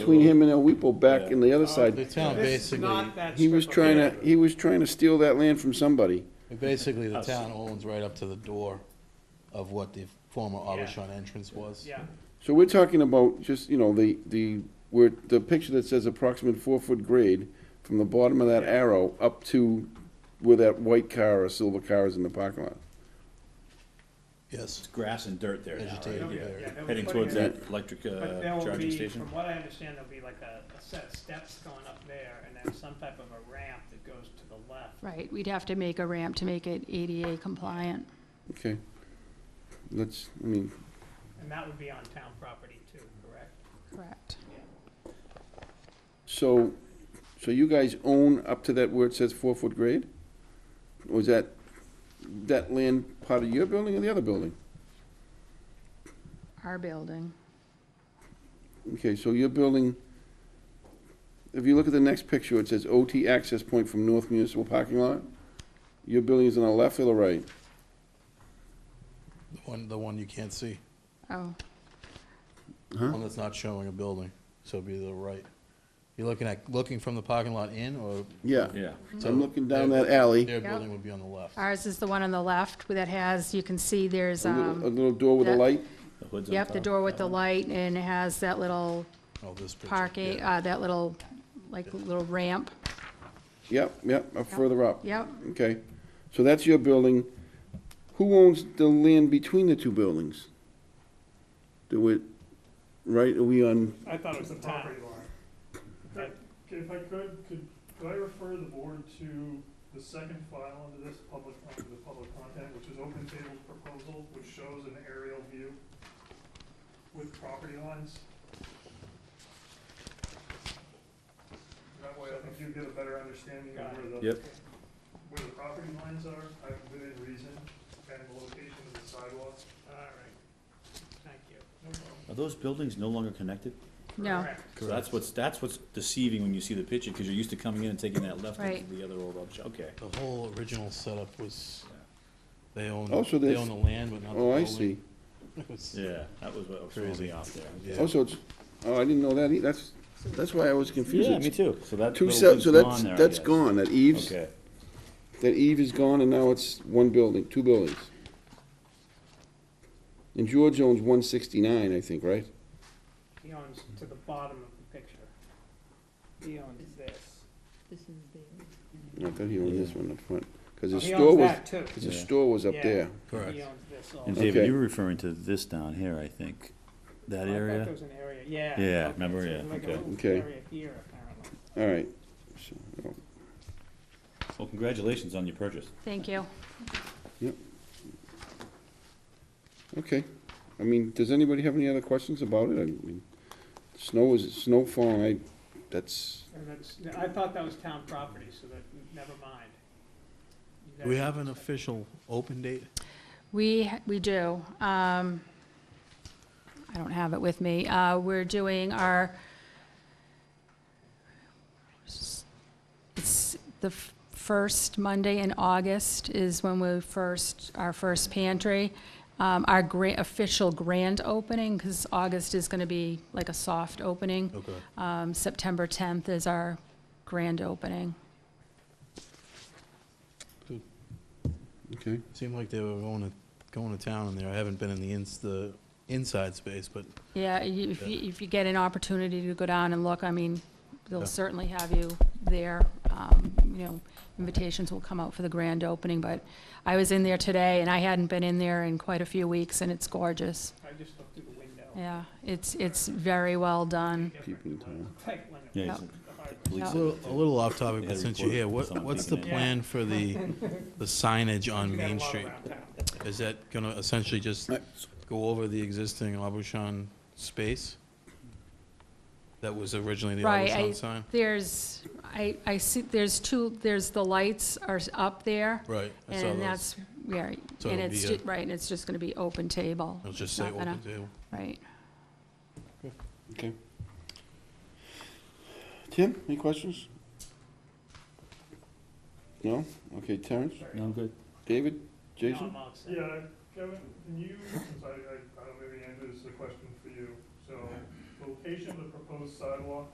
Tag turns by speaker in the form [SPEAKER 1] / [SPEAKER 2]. [SPEAKER 1] between him and El Weepo back in the other
[SPEAKER 2] The
[SPEAKER 1] side.
[SPEAKER 2] town
[SPEAKER 3] This is
[SPEAKER 2] basically,
[SPEAKER 3] not that
[SPEAKER 1] He was
[SPEAKER 3] strip of
[SPEAKER 1] trying to,
[SPEAKER 3] land.
[SPEAKER 1] he was trying to steal that land from somebody.
[SPEAKER 2] basically the town owns right up to the door of what the former Abishon entrance was.
[SPEAKER 3] Yeah,
[SPEAKER 1] So we're talking about just, you know, the, the, where, the picture that says approximate four-foot grade from the bottom of that arrow up to where that white car or silver car is in the parking lot.
[SPEAKER 2] Yes,
[SPEAKER 4] grass and dirt there now,
[SPEAKER 2] Vegetated
[SPEAKER 4] right?
[SPEAKER 2] Yeah.
[SPEAKER 3] area. Yeah, they'll
[SPEAKER 4] Heading
[SPEAKER 3] put
[SPEAKER 4] towards
[SPEAKER 3] it in.
[SPEAKER 4] that electric
[SPEAKER 3] but there
[SPEAKER 4] uh,
[SPEAKER 3] will
[SPEAKER 4] charging
[SPEAKER 3] be,
[SPEAKER 4] station.
[SPEAKER 3] from what I understand, there'll be like a, a set of steps going up there and then some type of a ramp that goes to the left.
[SPEAKER 5] Right, we'd have to make a ramp to make it ADA compliant.
[SPEAKER 1] Okay. Let's, I mean,
[SPEAKER 3] And that would be on town property too, correct?
[SPEAKER 5] Correct.
[SPEAKER 1] so, so you guys own up to that where it says four-foot grade? Or is that, that land part of your building or the other building?
[SPEAKER 5] Our building.
[SPEAKER 1] Okay, so your building, if you look at the next picture, it says OT access point from North Municipal Parking Lot. Your building is on the left or the right?
[SPEAKER 2] the one, the one you can't see,
[SPEAKER 5] Oh,
[SPEAKER 2] the one that's not showing a building, so it'd be the right. You're looking at, looking from the parking lot in, or
[SPEAKER 1] Yeah.
[SPEAKER 4] Yeah.
[SPEAKER 1] So I'm looking down that alley,
[SPEAKER 2] their building would be on the left?
[SPEAKER 5] ours is the one on the left that has, you can see there's,
[SPEAKER 1] a little, a
[SPEAKER 5] um,
[SPEAKER 1] little door with a
[SPEAKER 5] that-
[SPEAKER 1] light.
[SPEAKER 4] The hood's on
[SPEAKER 5] yep, the
[SPEAKER 4] top.
[SPEAKER 5] door with the light and it has that little
[SPEAKER 2] Oh, this picture.
[SPEAKER 5] parking,
[SPEAKER 2] yeah.
[SPEAKER 5] uh, that little, like, little ramp.
[SPEAKER 1] Yep, yep, up further up.
[SPEAKER 5] Yep,
[SPEAKER 1] Okay, so that's your building. Who owns the land between the two buildings? Do it, right, are we on,
[SPEAKER 6] I thought it was the
[SPEAKER 3] The town.
[SPEAKER 6] property line. If I could, could, could I refer the board to the second file under this public, under the public content, which is Open Table's proposal, which shows an aerial view with property lines? That way, I think you get a better understanding of where the,
[SPEAKER 4] Yep.
[SPEAKER 6] where the property lines are, uh, within reason, and the location of the sidewalks.
[SPEAKER 3] All right, thank you. No problem.
[SPEAKER 4] Are those buildings no longer connected?
[SPEAKER 5] no,
[SPEAKER 3] Correct.
[SPEAKER 4] So that's what's, that's what's deceiving when you see the picture, because you're used to coming in and taking that left
[SPEAKER 5] Right.
[SPEAKER 4] into the other old, option. okay.
[SPEAKER 2] The whole original setup was, they own,
[SPEAKER 1] Oh, so
[SPEAKER 2] they
[SPEAKER 1] there's-
[SPEAKER 2] own the land, but not the
[SPEAKER 1] oh, I
[SPEAKER 2] building.
[SPEAKER 1] see.
[SPEAKER 2] It was-
[SPEAKER 4] Yeah, that was what was throwing
[SPEAKER 2] Crazy.
[SPEAKER 4] me off there.
[SPEAKER 2] Yeah.
[SPEAKER 1] Oh, so it's, oh, I didn't know that, e- that's, that's why I was confused.
[SPEAKER 4] Yeah,
[SPEAKER 1] It's
[SPEAKER 4] me too. So that
[SPEAKER 1] Two
[SPEAKER 4] little
[SPEAKER 1] sets,
[SPEAKER 4] thing's
[SPEAKER 1] so that's,
[SPEAKER 4] there, I
[SPEAKER 1] that's
[SPEAKER 4] guess.
[SPEAKER 1] gone, that Eve's.
[SPEAKER 4] Okay.
[SPEAKER 1] That Eve is gone, and now it's one building, two buildings. And George owns one sixty-nine, I think, right?
[SPEAKER 3] He owns to the bottom of the picture. He owns this.
[SPEAKER 1] I thought he owned this one up front, because his
[SPEAKER 3] He
[SPEAKER 1] store
[SPEAKER 3] owns
[SPEAKER 1] was,
[SPEAKER 3] that too.
[SPEAKER 1] because his
[SPEAKER 4] Yeah.
[SPEAKER 1] store was up
[SPEAKER 3] Yeah.
[SPEAKER 1] there.
[SPEAKER 2] Correct.
[SPEAKER 3] He owns this also.
[SPEAKER 4] And
[SPEAKER 1] Okay.
[SPEAKER 4] David, you were referring to this down here, I think, that
[SPEAKER 3] I thought there
[SPEAKER 4] area?
[SPEAKER 3] was an area, yeah.
[SPEAKER 4] Yeah,
[SPEAKER 3] okay,
[SPEAKER 4] remember,
[SPEAKER 3] so
[SPEAKER 4] yeah,
[SPEAKER 3] like a
[SPEAKER 4] okay.
[SPEAKER 3] little
[SPEAKER 1] Okay.
[SPEAKER 3] Area here, apparently.
[SPEAKER 1] All right. So, I don't-
[SPEAKER 4] Well, congratulations on your purchase.
[SPEAKER 5] thank you.
[SPEAKER 1] Okay, I mean, does anybody have any other questions about it? I mean, snow is, snow falling, I, that's,
[SPEAKER 3] And that's, I thought that was town property, so that, never mind. You guys-
[SPEAKER 2] We have an official open date?
[SPEAKER 5] We, ha- we do. Um, I don't have it with me. Uh, We're doing our, it's the f- first Monday in August is when we first, our first pantry. Um, Our gra- official grand opening, because August is going to be like a soft opening.
[SPEAKER 2] Okay.
[SPEAKER 5] Um, September 10th is our grand opening.
[SPEAKER 1] okay.
[SPEAKER 2] Seemed like they were going to, going to town in there. I haven't been in the ins, the inside space, but
[SPEAKER 5] Yeah, you- if you, if you get an opportunity to go down and look, I mean,
[SPEAKER 2] Yeah.
[SPEAKER 5] they'll certainly have you there. Um, You know, invitations will come out for the grand opening, but I was in there today, and I hadn't been in there in quite a few weeks, and it's gorgeous.
[SPEAKER 3] I just looked through the window.
[SPEAKER 5] Yeah, it's, it's very well done.
[SPEAKER 1] People in town.
[SPEAKER 3] Like when it
[SPEAKER 4] Yeah,
[SPEAKER 5] Yeah.
[SPEAKER 3] was hard.
[SPEAKER 4] police.
[SPEAKER 2] a little, a little off topic,
[SPEAKER 4] Yeah,
[SPEAKER 2] but since you're
[SPEAKER 4] recorder
[SPEAKER 2] here,
[SPEAKER 4] for
[SPEAKER 2] what,
[SPEAKER 4] someone
[SPEAKER 2] what's the
[SPEAKER 4] peeking
[SPEAKER 3] in.
[SPEAKER 2] plan for the, the signage on
[SPEAKER 3] We got a
[SPEAKER 2] Main
[SPEAKER 3] lot
[SPEAKER 2] Street?
[SPEAKER 3] around town.
[SPEAKER 2] Is that gonna essentially just go over the existing Abushan space? That was originally the
[SPEAKER 5] Right, I-
[SPEAKER 2] Abushan sign?
[SPEAKER 5] There's, I, I see, there's two, there's, the lights are up there,
[SPEAKER 2] Right, I saw
[SPEAKER 5] and
[SPEAKER 2] those.
[SPEAKER 5] that's, yeah,
[SPEAKER 2] So
[SPEAKER 5] and
[SPEAKER 2] it'll
[SPEAKER 5] it's,
[SPEAKER 2] be a-
[SPEAKER 5] ju- right, and it's just gonna be open table.
[SPEAKER 2] It'll just say
[SPEAKER 5] Not gonna-
[SPEAKER 2] open table.
[SPEAKER 5] Right.
[SPEAKER 1] Okay. Tim, any questions? No? Okay, Terrence,
[SPEAKER 4] No, I'm good.
[SPEAKER 1] David,
[SPEAKER 3] No,
[SPEAKER 1] Jason?
[SPEAKER 3] I'm all set.
[SPEAKER 6] Yeah, Kevin, can you, since I, I, I don't maybe Andrew, this is a question for you, so, location of the proposed sidewalk